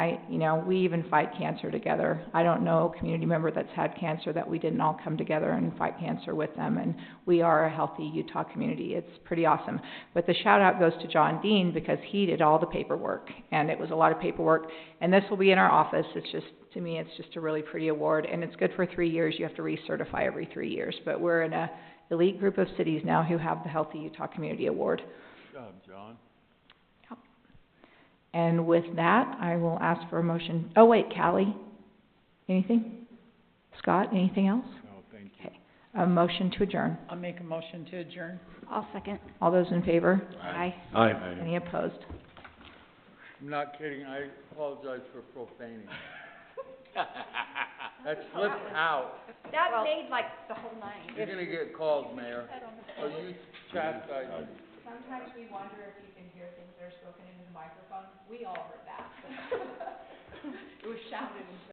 I, you know, we even fight cancer together. I don't know a community member that's had cancer that we didn't all come together and fight cancer with them, and we are a healthy Utah community. It's pretty awesome. But the shout out goes to John Dean because he did all the paperwork, and it was a lot of paperwork. And this will be in our office. It's just, to me, it's just a really pretty award, and it's good for three years. You have to recertify every three years. But we're in a elite group of cities now who have the Healthy Utah Community Award. Good job, John. And with that, I will ask for a motion, oh wait, Callie, anything? Scott, anything else? No, thank you. Okay. A motion to adjourn. I'll make a motion to adjourn. I'll second. All those in favor? Aye. Aye. Any opposed? I'm not kidding, I apologize for profaning. That slipped out. That made like the whole nine. You're gonna get called, Mayor. So you chastise me. Sometimes we wonder if you can hear things that are spoken into the microphone. We all heard that. It was shouted